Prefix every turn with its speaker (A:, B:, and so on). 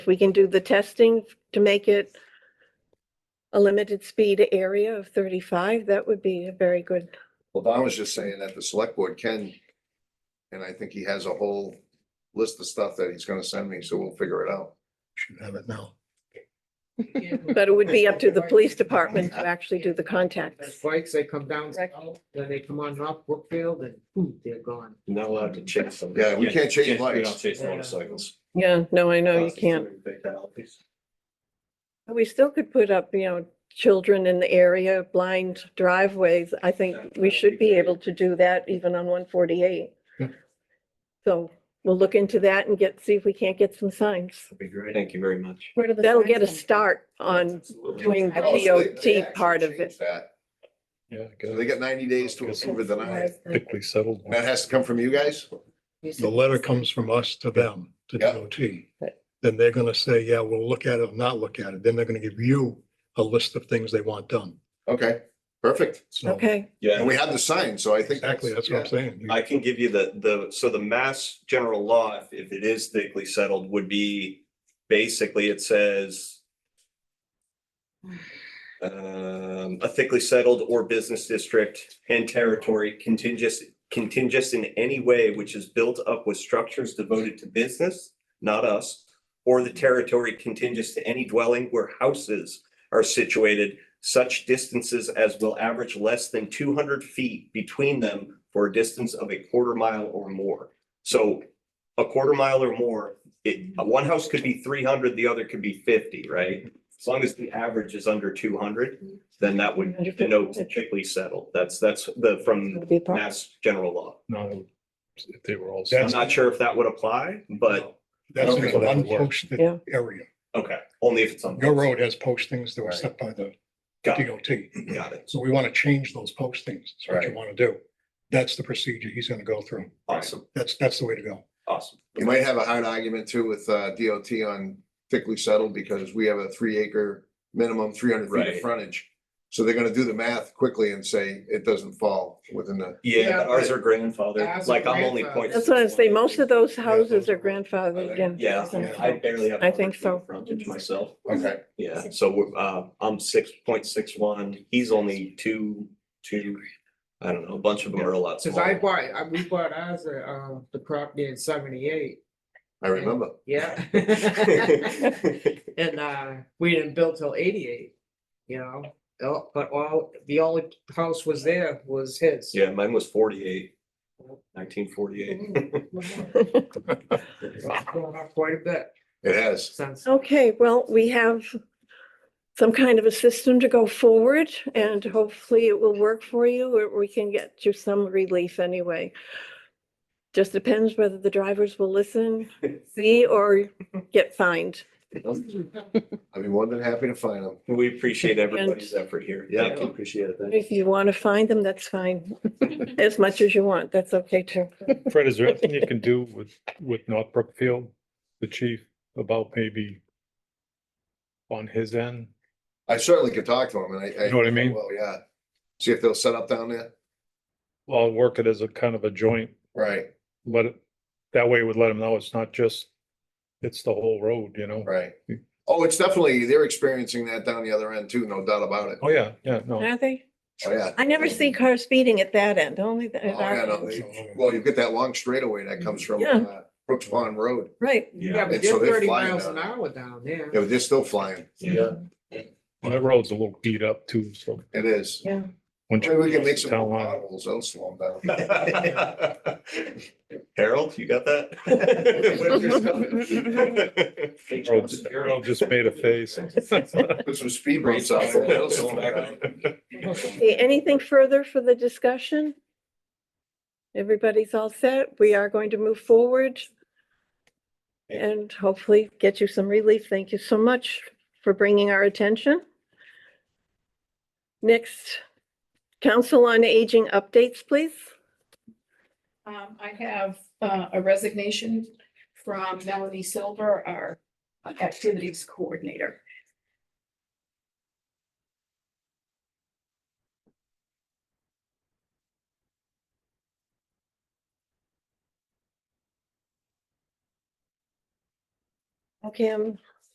A: if we can do the testing to make it a limited speed area of thirty-five, that would be a very good,
B: Well, Don was just saying that the select board can, and I think he has a whole list of stuff that he's gonna send me, so we'll figure it out.
C: Should have it now.
A: but it would be up to the police department to actually do the
D: Those
A: contacts.
D: bikes, they come down,
A: Correct.
D: south, then they come on up Brookfield and boom, they're gone.
E: Not allowed to chase them.
B: Yeah, we can't chase
E: We
B: bikes.
E: don't chase motorcycles.
A: Yeah, no, I know, you can't. But We still could put up, you know, children in the area, blind driveways. I think we should be able to do that even on one forty-eight.
C: Yeah.
A: So we'll look into that and get, see if we can't get some signs.
E: Be great. Thank you very much.
F: Where do the
A: That'll
F: signs
A: get a
F: come from?
A: start on doing the
B: Oh,
F: Absolutely.
A: DOT part of it.
B: That,
C: Yeah, I
B: so they
C: guess.
B: get ninety days to approve or deny it.
C: Quickly settled.
B: That has to come from you guys?
F: You said
C: The letter comes from us to them, to
B: Yeah.
C: DOT. Then they're gonna say, yeah, we'll look at it or not look at it. Then they're gonna give you a list of things they want done.
B: Okay, perfect.
C: So
A: Okay,
B: And
E: Yeah,
B: we have the sign, so I think.
C: Exactly, that's what I'm saying.
E: I can give you the, the, so the mass general law, if- if it is thickly settled, would be, basically, it says um, a thickly settled or business district and territory contingent, contingent in any way which is built up with structures devoted to business, not us, or the territory contingent to any dwelling where houses are situated such distances as will average less than two hundred feet between them for a distance of a quarter mile or more. So a quarter mile or more, it, one house could be three hundred, the other could be fifty, right? As long as the average is under two hundred, then that would denote typically settled. That's, that's the, from
A: it'll be a part.
E: mass general law.
C: No, if they were all.
E: I'm not sure if that would apply, but,
C: That's an
B: Okay.
A: Yeah.
C: unposted area.
E: okay, only if it's on.
C: Your road has postings that were
E: Right.
C: set by the
E: Got it,
C: DOT.
E: got it.
C: So we want to change those postings. That's what you
E: Right.
C: want to do. That's the procedure he's gonna go through.
E: Awesome,
C: That's, that's the way to go.
E: awesome.
B: You might have a hard argument too with uh DOT on thickly settled because we have a three acre minimum, three hundred feet of
E: Right.
B: frontage. So they're gonna do the math quickly and say it doesn't fall within the,
E: Yeah, but ours are grandfathered,
D: Ours are
E: like I'm only
D: grandfathered.
E: point.
A: That's what I say, most of those
C: Yeah,
A: houses
C: those
A: are
C: are-
A: grandfathered in.
E: Yeah, I barely have.
A: I think so.
E: 100 feet Frontage myself,
B: okay,
E: yeah, so we're, uh, I'm six point six one, he's only two, two, I don't know, a bunch of them are a lot
D: Cause I
E: smaller.
D: bought, I, we bought ours, uh, uh, the property in seventy-eight,
B: I remember.
D: yeah. And, uh, we didn't build till eighty-eight, you know, Oh, but all, the only house was there was his.
E: Yeah, mine was forty-eight, nineteen forty-eight.
D: It's Going up quite a bit
B: It has.
D: since.
A: Okay, well, we have some kind of a system to go forward and hopefully it will work for you or we can get you some relief anyway. Just depends whether the drivers will listen, see, or get fined.
B: I'd be more than happy to find them.
E: We appreciate everybody's effort here.
B: Yeah.
E: Thank you. Appreciate it. Thank you.
A: If you want to find them, that's fine. As much as you want, that's okay too.
G: Fred, is there anything you can do with, with North Brookfield, the chief, about maybe on his end?
B: I certainly could talk to them and I.
G: You know what I mean?
B: Well, yeah. See if they'll set up down there.
G: Well, I'll work it as a kind of a joint,
B: Right,
G: let it, that way it would let him know it's not just, it's the whole road, you know?
B: right. Oh, it's definitely, they're experiencing that down the other end too, no doubt about it.
G: Oh, yeah, yeah, no,
A: Are they?
B: Oh, yeah.
A: I never see cars speeding at that end, only the-
B: Oh,
A: at
B: yeah,
A: our
B: no,
A: end.
C: um,
B: they- Well, you get that long straightaway that comes from
A: Yeah.
B: uh, Brooks Pond Road.
A: Right,
D: Yeah, but
B: And so
D: they're
B: they're
D: thirty
B: flying
D: miles an
B: down.
D: hour down there.
B: Yeah, but they're still flying.
E: Yeah.
G: that road's a little beat up too, so.
B: It is.
A: yeah.
G: once
B: Maybe
G: you
B: we can
G: cross
B: make
G: the
B: some
G: town
B: more
G: line-
B: potholes. They'll slow them down.
E: Harold, you got that?
G: road's- Harold just made a face.
B: Put some speed bumps out there. They'll slow 'em down.
A: Okay, anything further for the discussion? Everybody's all set. We are going to move forward. And hopefully get you some relief. Thank you so much for bringing our attention. Next, Council on Aging updates, please.
F: Um, I have, uh, a resignation from Melanie Silver, our activities coordinator.
A: Okay, I'm